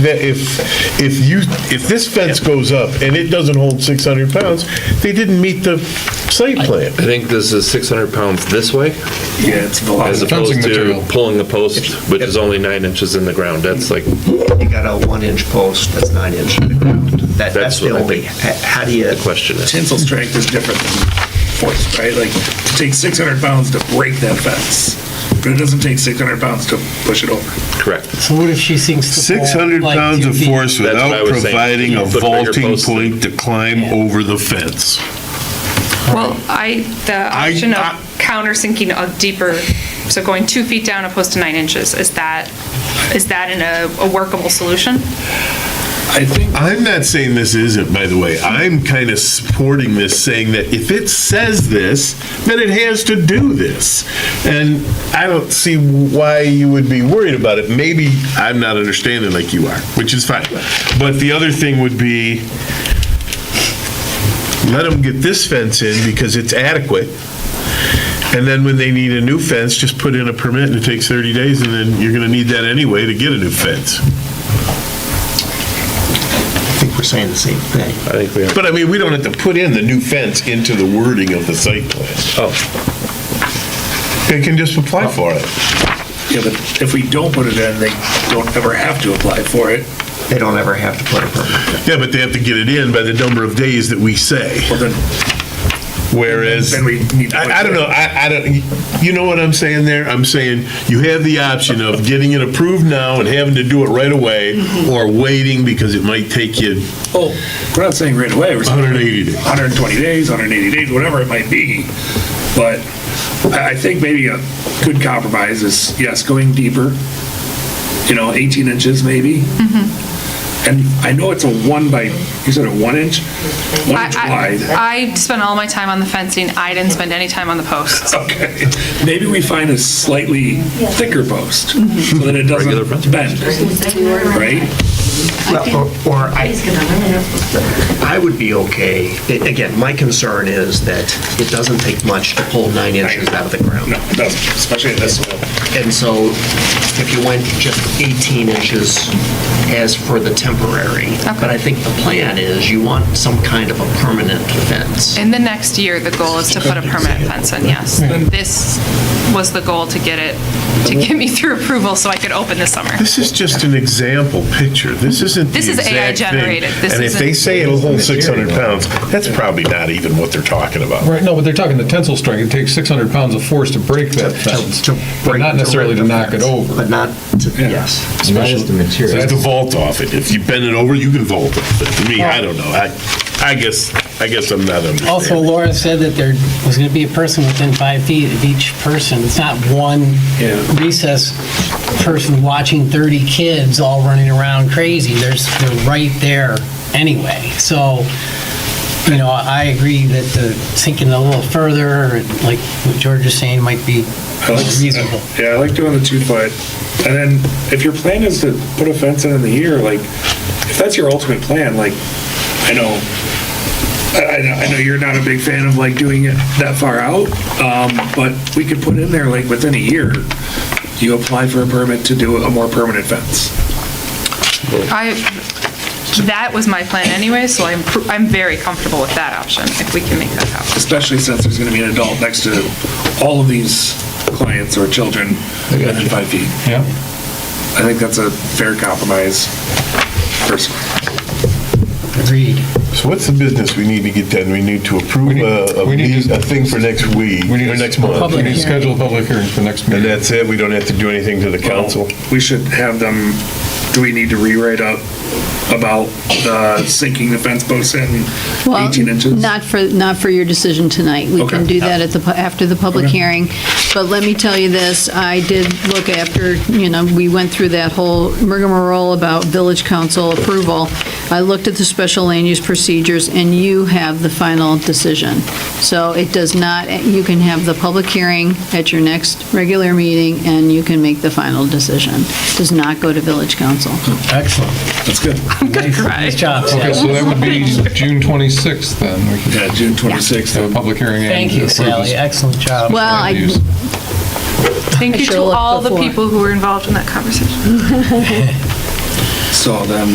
that if, if you, if this fence goes up and it doesn't hold 600 pounds, they didn't meet the site plan. I think this is 600 pounds this way, Yeah, it's as velocity. opposed fencing to material. pulling the post, which is only nine inches in the ground. That's like, You got a one-inch post that's nine inch to the ground. That, That's Mm-hmm. that's the what I only, think h- how do you? the question is. Tensile strength is different than force, right? Like, to take 600 pounds to break that fence, but it doesn't take 600 pounds to push it over. correct. So what if she sinks the pole? 600 like pounds two of feet? force That's what I without was saying. providing a Put bigger vaulting posts in. point to climb over the fence. Well, I, the I- option of I- countersinking a deeper, so going two feet down opposed to nine inches, is that, is that in a- a workable solution? I think I'm not saying this isn't, by the way. I'm kind of supporting this, saying that if it says this, then it has to do this. And I don't see why you would be worried about it. Maybe I'm not understanding like you are, which is fine. But the other thing would be, let them get this fence in because it's adequate. And then when they need a new fence, just put in a permit and it takes 30 days, and then you're going to need that anyway to get a new fence. I think we're saying the same thing. I think we are. But I mean, we don't have to put in the new fence into the wording of the site plan. Oh, They can just apply for it. Yeah, but if we don't put it in, they don't ever have to apply for it. They don't ever have to put a permit. Yeah, but they have to get it in by the number of days that we say, Well, then, whereas, Then we need to- I, I don't know, I, I don't, you know what I'm saying there? I'm saying you have the option of getting it approved now and having to do it right away, or waiting because it might take you oh, we're not saying right away. We're saying 180 days. 120 days, 180 days, whatever it might be. But I I think maybe a good compromise is, yes, going deeper, you know, 18 inches maybe. Mm-hmm. And I know it's a one by, you said a one inch? One inch I- wide. I I spent all my time on the fencing, I didn't spend any time on the posts. Okay, maybe we find a slightly thicker post, so Mm-hmm. that it Regular post. doesn't bend, right? Well, or- Or I, I would be okay, A- again, my concern is that it doesn't take much to pull nine inches out of the ground. No, it doesn't, especially in this soil. And so if you went just 18 inches as for the temporary, but I think the plan is you want some kind of a permanent fence. In the next year, the goal is to put a permanent fence in, yes. This was the goal to get it, to get me through approval so I could open this summer. This is just an example picture. This isn't the This is AI exact thing. generated. This And if they isn't- say it'll hold 600 pounds, that's probably not even what they're talking about. Right, no, but they're talking the tensile strength. It takes 600 pounds of force to break that fence, To- to but break- not necessarily to rip the knock it fence, over. But not, to- yes. There's the vault off it. If you bend it over, you can vault it. But to me, I don't know. I, I guess, I guess I'm not understanding. Also, Laura said that there was going to be a person within five feet of each person. It's not one recess person watching 30 kids all running around crazy. There's, they're right there anyway. So, you know, I agree that the sinking a little further, like what George is saying, might be I like- reasonable. Yeah, I like doing the two foot. And then if your plan is to put a fence in in the year, like, if that's your ultimate plan, like, I know, I, I know- I know you're not a big fan of like doing it that far out, um, but we could put in there like within a year, you apply for a permit to do a more permanent fence. I, that was my plan anyway, so I'm, pr- I'm very comfortable with that option, if we can make that happen. especially since there's going to be an adult next to all of these clients or children within five feet. Yeah. I think that's a fair compromise, personally. Agreed. So what's the business we need to get done? We need to approve need- a, a we need meet- to- a thing for next week, We need or to- next We month. Public need to hearing. schedule a public hearing for next And meeting. that's it? We don't have to do anything to the council? We should have them, do we need to rewrite up about the sinking the fence posts in 18 Well, inches? not for, not for your decision tonight. We can Okay. do that at the, pu- after the public hearing. But let me tell you this, I did look after, you know, we went through that whole rigmarole about village council approval. I looked at the special land use procedures, and you have the final decision. So it does not, you can have the public hearing at your next regular meeting, and you can make the final decision. Does not go to village council. Excellent. That's good. Nice nice job, Okay, Sally. so that would be June 26th then. We could Yeah, June 26th. have a public hearing. and Thank you, approve this. Sally. Excellent job. Well, I, Use. Thank you sure to looked all the before. people who were involved in that conversation. saw them